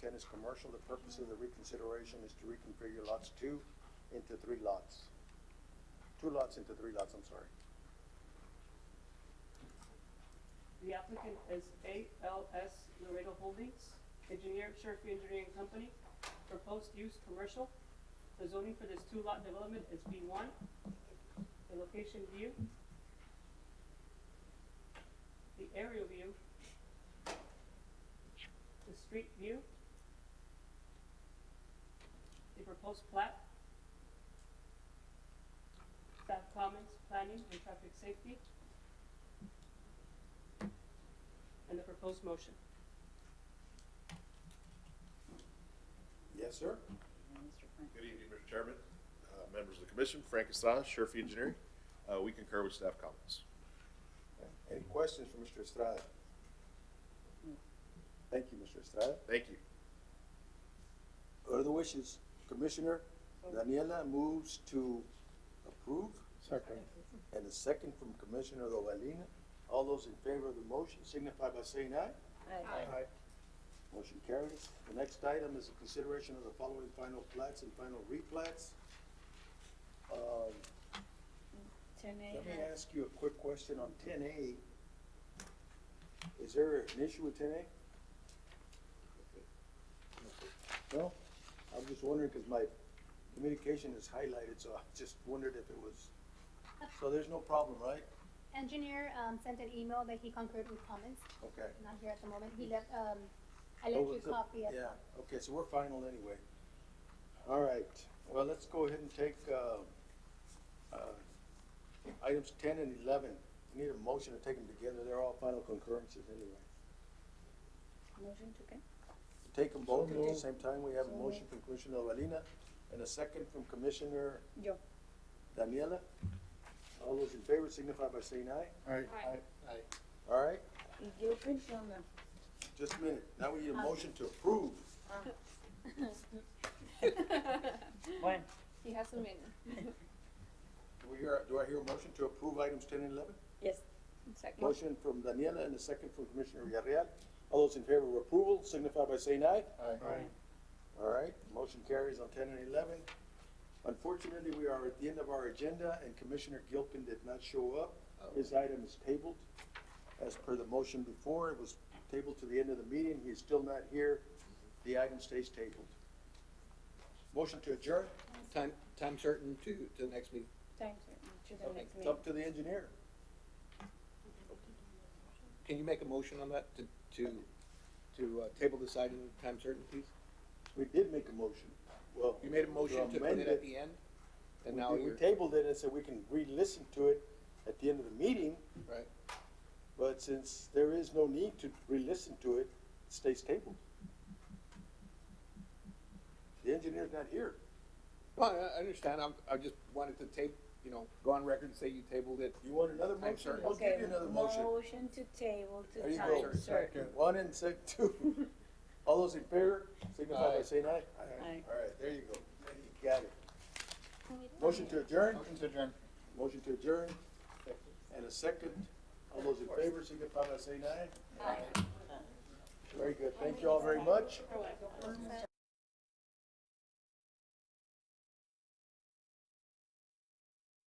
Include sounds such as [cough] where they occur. ten is commercial. The purpose of the reconsideration is to reconfigure lots two into three lots. Two lots into three lots, I'm sorry. The applicant is ALS Laredo Holdings, engineer Sherfie Engineering Company, proposed use commercial. The zoning for this two lot development is B one. The location view. The aerial view. The street view. The proposed plat. Staff comments, planning and traffic safety, and the proposed motion. Yes, sir? Good evening, Mr. Chairman, uh, members of the commission, Frank Estrada, Sherfy Engineering. Uh, We concur with staff comments. Any questions for Mr. Estrada? Thank you, Mr. Estrada. Thank you. What are the wishes? Commissioner Daniela moves to approve. Second. And a second from Commissioner Lovalina. All those in favor of the motion signify by saying aye. Aye. Motion carries. The next item is a consideration of the following final plats and final replats. Um, Ten A Let me has, ask you a quick question on ten A. Is there an issue with ten A? No? I was just wondering, cause my communication is highlighted, so I just wondered if it was, so there's no problem, right? Engineer um, sent an email that he concurred with comments, Okay. not here at the moment. He left, um, I Oh, left you it's a a- copy of Yeah, okay, so we're final anyway. All right, well, let's go ahead and take, uh, uh, items ten and eleven. We Need a motion to take them together, they're all final concurrences anyway. motion to con- Take them both at the same time, we have a motion from Commissioner Valina and a second from Commissioner yo, Daniela. All those in favor signify by saying aye. Aye. All right, y yo pensando, just a minute, now we need a motion to approve. bueno, He has a minute. Do we hear, do I hear a motion to approve items ten and eleven? yes, exacto. Motion from Daniela and a second from Commissioner Villarreal. All those in favor of approval signify by saying aye. Aye. All right, motion carries on ten and eleven. Unfortunately, we are at the end of our agenda and Commissioner Gilpin did not show up. His Oh. item is tabled. As per the motion before, it was tabled to the end of the meeting. He is still not here. The item stays tabled. Motion to adjourn? Time, time certain to, to the next meeting. Time to, to the next It's meeting. up to the engineer. Can you make a motion on that to, to, to uh, table this item, time certain, please? We did make a motion. Well. You made a motion to put amend it at the end? And We now did- you're, We tabled it and said we can re-listen to it at the end of the meeting, right, but since there is no need to re-listen to it, it stays tabled. The engineer's not here. well, I, I understand, I'm, I just wanted to tape, you know, go on record and say you tabled it. You want another Time motion? certain. We'll give you another motion. Motion to table There to you time go. certain. One and sec [laughs] two. All those in favor, signify by Aye. saying aye. Aye. All right, there you go. You Got it. Motion to adjourn? Motion to adjourn. Motion to adjourn. And a second. All those in favor, signify by saying aye. Aye. Very good. Thank you all very much. it.